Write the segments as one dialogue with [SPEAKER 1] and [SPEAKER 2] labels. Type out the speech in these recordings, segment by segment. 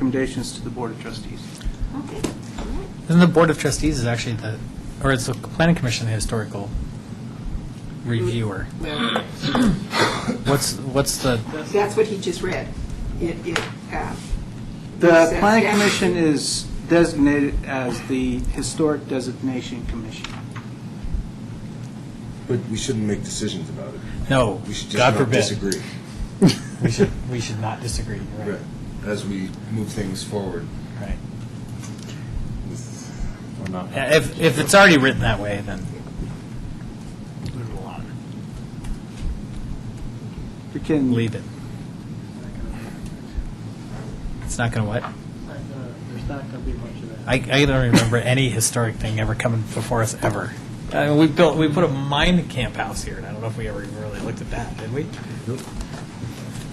[SPEAKER 1] recommendations to the Board of Trustees.
[SPEAKER 2] Okay.
[SPEAKER 3] Then the Board of Trustees is actually the, or it's the Planning Commission, the historical reviewer. What's, what's the,
[SPEAKER 2] That's what he just read. It, it, uh,
[SPEAKER 1] The
[SPEAKER 2] Yes.
[SPEAKER 1] Planning Commission is designated as the Historic Designation Commission.
[SPEAKER 4] But we shouldn't make decisions about it.
[SPEAKER 3] no,
[SPEAKER 4] We should
[SPEAKER 3] God
[SPEAKER 4] just not
[SPEAKER 3] forbid.
[SPEAKER 4] disagree.
[SPEAKER 3] We should, we should not disagree, you're right.
[SPEAKER 4] Right. As we move things forward.
[SPEAKER 3] Right.
[SPEAKER 4] with- or not.
[SPEAKER 3] Yeah, If, if it's already written that way, then leave it alone.
[SPEAKER 1] We can.
[SPEAKER 3] Leave it. It's not going to what?
[SPEAKER 5] There's not going to be much of that.
[SPEAKER 3] I, I don't remember any historic thing ever coming before us, ever. I mean, Uh, we built, we put a mine camp house here, and I don't know if we ever even really looked at that, did we?
[SPEAKER 4] Nope.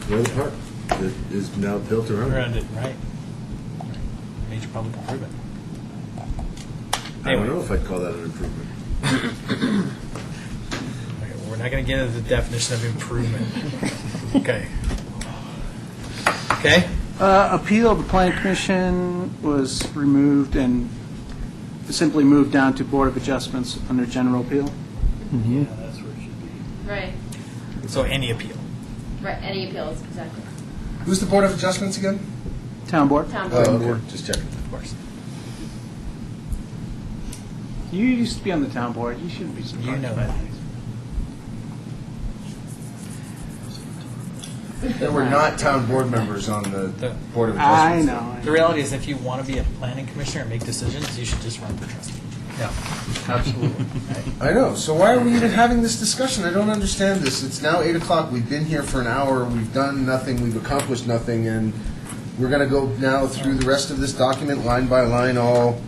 [SPEAKER 4] The other park that is now built around
[SPEAKER 3] Around
[SPEAKER 4] it.
[SPEAKER 3] it, right. Major public improvement.
[SPEAKER 4] I don't
[SPEAKER 3] Anyway.
[SPEAKER 4] know if I'd call that an improvement.
[SPEAKER 3] Okay, We're not going to get into the definition of improvement. Okay. Okay?
[SPEAKER 1] Uh, Appeal to Planning Commission was removed and simply moved down to Board of Adjustments under general appeal.
[SPEAKER 5] Yeah, that's where it should be.
[SPEAKER 6] Right,
[SPEAKER 3] So any appeal.
[SPEAKER 6] right, any appeals, exactly.
[SPEAKER 4] Who's the Board of Adjustments again?
[SPEAKER 1] Town Board?
[SPEAKER 6] Town
[SPEAKER 4] Oh,
[SPEAKER 6] board.
[SPEAKER 4] okay, just checking. Of course.
[SPEAKER 1] You used to be on the Town Board, you shouldn't be surprised.
[SPEAKER 3] You know
[SPEAKER 1] by
[SPEAKER 3] that.
[SPEAKER 1] these.
[SPEAKER 4] There were not town board members on
[SPEAKER 3] The-
[SPEAKER 4] the Board of
[SPEAKER 1] I
[SPEAKER 4] Adjustments.
[SPEAKER 1] know. I
[SPEAKER 3] The reality is, if you want to be a planning commissioner and make decisions, you should just run for trustee.
[SPEAKER 4] Yeah, absolutely. I know, so why are we even having this discussion? I don't understand this. It's now eight o'clock, we've been here for an hour, we've done nothing, we've accomplished nothing, and we're gonna go now through the rest of this document, line by line, all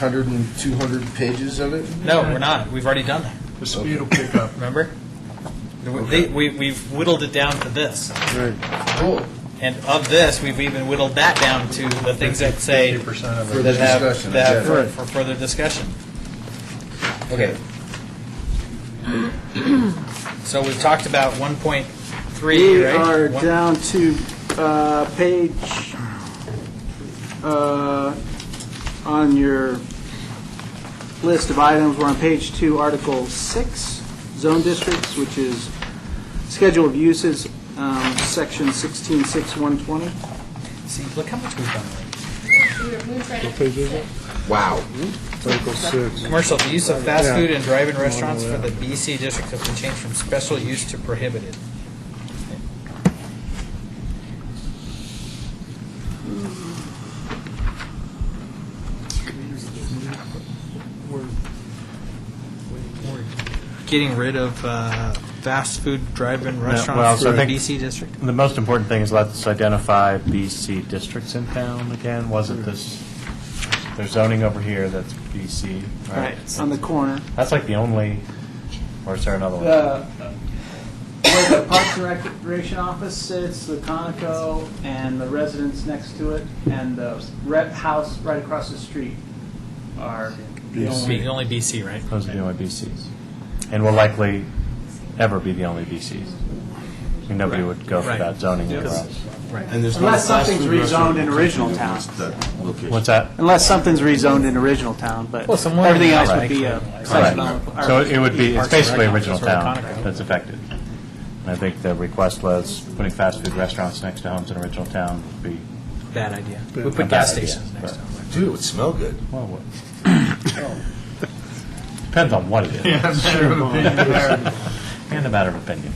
[SPEAKER 4] hundred and two hundred pages of it?
[SPEAKER 3] No, we're not. We've already done that.
[SPEAKER 4] The speed will pick up.
[SPEAKER 3] Remember? They, we, we've whittled it down to this.
[SPEAKER 4] Right, cool,
[SPEAKER 3] And of this, we've even whittled that down to the things that say.
[SPEAKER 4] for the
[SPEAKER 3] that have-
[SPEAKER 4] discussion.
[SPEAKER 3] that have
[SPEAKER 4] yeah.
[SPEAKER 3] for- For further discussion.
[SPEAKER 4] Okay,
[SPEAKER 3] So we've talked about 1.3,
[SPEAKER 1] We
[SPEAKER 3] right?
[SPEAKER 1] are
[SPEAKER 3] One-
[SPEAKER 1] down to uh, page, uh, on your list of items, we're on page two, Article 6, Zone Districts, which is Schedule of Uses, um, Section 166120.
[SPEAKER 3] See, look how much we've done. already.
[SPEAKER 6] We were moved right up to six.
[SPEAKER 4] wow.
[SPEAKER 3] Commercial, the use of fast food and drive-in restaurants for the BC district has been changed from special use to prohibited. Getting rid of uh, fast food drive-in
[SPEAKER 7] well,
[SPEAKER 3] restaurants
[SPEAKER 7] so
[SPEAKER 3] for
[SPEAKER 7] I
[SPEAKER 3] the BC
[SPEAKER 7] think-
[SPEAKER 3] district?
[SPEAKER 7] The most important thing is let's identify BC districts in town again. Wasn't
[SPEAKER 3] Mm-hmm.
[SPEAKER 7] this, there's zoning over here that's BC, right?
[SPEAKER 1] On the corner.
[SPEAKER 7] That's like the only, or is there another one?
[SPEAKER 1] The, where the Parks and Recreation Office sits, the Conoco, and the residence next to it, and the rep house right across the street are the only.
[SPEAKER 3] Only only BC, right?
[SPEAKER 7] Those are the only BCs. And will likely ever be the only BCs. I mean, Nobody would go for
[SPEAKER 3] Right.
[SPEAKER 7] that zoning. across.
[SPEAKER 4] And there's
[SPEAKER 1] Unless something's rezoned in original town.
[SPEAKER 7] What's that?
[SPEAKER 1] Unless something's rezoned in original town, but
[SPEAKER 3] Well, somewhere in
[SPEAKER 1] everything
[SPEAKER 3] the
[SPEAKER 1] else would
[SPEAKER 3] back.
[SPEAKER 1] be a.
[SPEAKER 7] Right.
[SPEAKER 1] or-
[SPEAKER 7] So it would be, it's
[SPEAKER 3] Parks and Rec
[SPEAKER 7] basically
[SPEAKER 3] office
[SPEAKER 7] original
[SPEAKER 3] or a
[SPEAKER 7] town
[SPEAKER 3] Conoco.
[SPEAKER 7] that's affected. And I think the request was putting fast food restaurants next to homes in original town would be
[SPEAKER 3] Bad idea. We
[SPEAKER 7] A
[SPEAKER 3] put
[SPEAKER 7] bad
[SPEAKER 3] gas
[SPEAKER 7] idea,
[SPEAKER 3] stations next
[SPEAKER 7] but-
[SPEAKER 3] to them.
[SPEAKER 4] Dude, it would smell good.
[SPEAKER 7] Well, what? Depends on what it is. And a matter of opinion,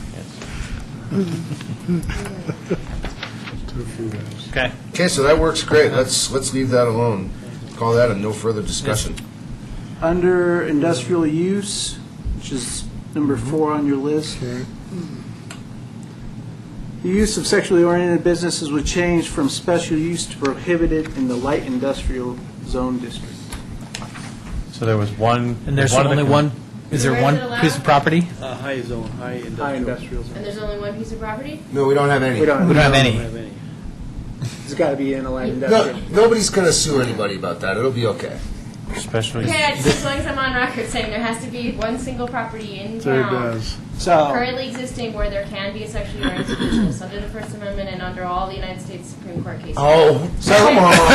[SPEAKER 7] yes.
[SPEAKER 3] Okay.
[SPEAKER 4] Okay, so that works great, let's, let's leave that alone. Call that a no further discussion.
[SPEAKER 1] Under industrial use, which is number four on your list. The use of sexually oriented businesses would change from special use to prohibited in the light industrial zone district.
[SPEAKER 7] So there was one.
[SPEAKER 3] And there's
[SPEAKER 7] of the
[SPEAKER 3] only
[SPEAKER 7] com-
[SPEAKER 3] one, is there
[SPEAKER 6] Where is
[SPEAKER 3] one
[SPEAKER 6] it allowed?
[SPEAKER 3] piece of property?
[SPEAKER 5] Uh, High zone, high industrial.
[SPEAKER 1] High industrial zone.
[SPEAKER 6] And there's only one piece of property?
[SPEAKER 4] No, we don't have any.
[SPEAKER 1] We don't,
[SPEAKER 3] We don't have
[SPEAKER 5] I
[SPEAKER 3] any.
[SPEAKER 5] don't have any.
[SPEAKER 1] it's got to be in a light
[SPEAKER 4] No,
[SPEAKER 1] industrial.
[SPEAKER 4] nobody's going to sue anybody about that. It'll be okay.
[SPEAKER 7] Special use.
[SPEAKER 6] Okay, I just, as long as I'm on record saying there has to be one single property in
[SPEAKER 5] There it
[SPEAKER 6] town
[SPEAKER 5] does.
[SPEAKER 1] So,
[SPEAKER 6] currently existing where there can be a sexually oriented business under the First Amendment and under all the United States Supreme Court cases.
[SPEAKER 4] Oh,
[SPEAKER 1] so,